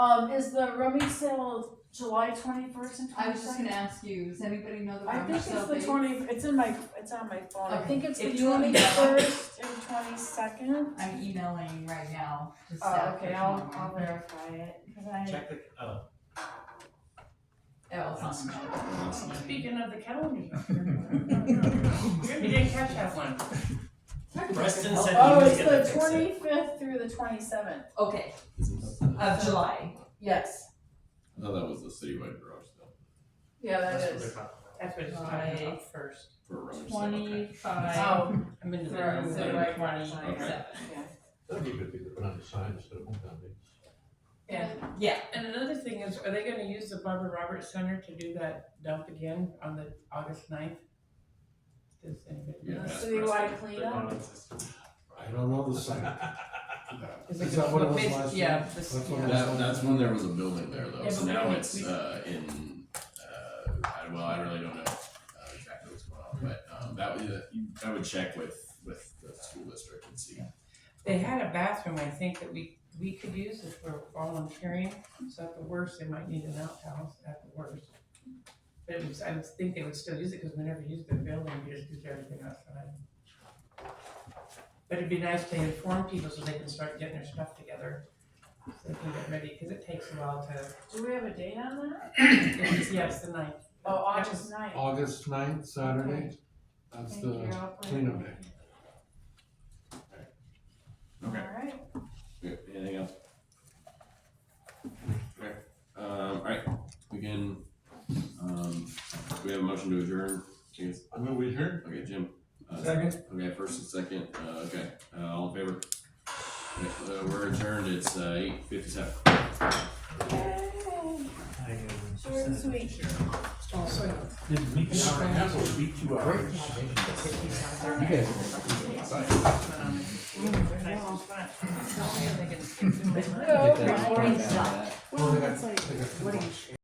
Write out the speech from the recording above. Um, is the rummy sale July twenty-first and I was just twenty-second? gonna ask you, does anybody know the I rummage think it's sale the date? twenty, it's in my, it's on my phone, I Okay. think it's the If you want me to- twenty-first and twenty-second. I'm emailing right now to Oh, staff for okay, I'll, I'll tomorrow. verify it, cause I, Check the, oh, Oh, it's on the calendar. Speaking of the calendar. Maybe they catch that one. Preston said oh, he was it's gonna the fix it. twenty-fifth through the twenty-seventh, Okay, of July, yes, I thought that was the citywide garage sale yeah, that That's what is. they're talking about. That's what it's talking about first. for a rummage sale, okay. Twenty-five, Oh, I'm into Right, the so zero right, twenty-seven. yeah, That'd be a good thing to put on the sign instead of home down there. Yeah, And another thing is, are they gonna use the Barbara Roberts Center to do that dump again on the August ninth? Does anybody? Yeah, Uh, that's so you Preston. wanna clean They're going up? with this. I don't know the sign. it Is that what it was basi- last yeah, year? this- That's what yeah. it was That, last that's year? when there was a building there Yeah, though, so but now we- it's, we- uh, in, uh, I, well, I really don't know uh, exactly what's going on, but, um, that would, uh, you- I would check with, with the school district and see. They had a bathroom, I think, that we, we could use if we're volunteering, so at the worst, they might need an outhouse at the worst. But it was, I would think they would still use it, cause we never used the building, we just used everything outside. But it'd be nice to inform people so they can start getting their stuff together, so they can get ready, cause it takes a while to, Do we have a date on that? it's, yes, the ninth. Oh, August ninth. August ninth, Saturday, that's Thank you, the Oh, I'll put it cleanup in. day. Okay. Alright, Okay, anything else? Okay, um, alright, we can, um, do we have a motion to adjourn, Yes. I'm gonna wait here. okay, Jim? uh, Second. Okay, first and second, uh, okay, uh, all in favor? Okay, uh, we're adjourned, it's, uh, eight fifty-seven. yay, I, um, short and sweet. Also, Didn't make an hour and a half, it'll be two hours. You guys Go. Well, they got- they got-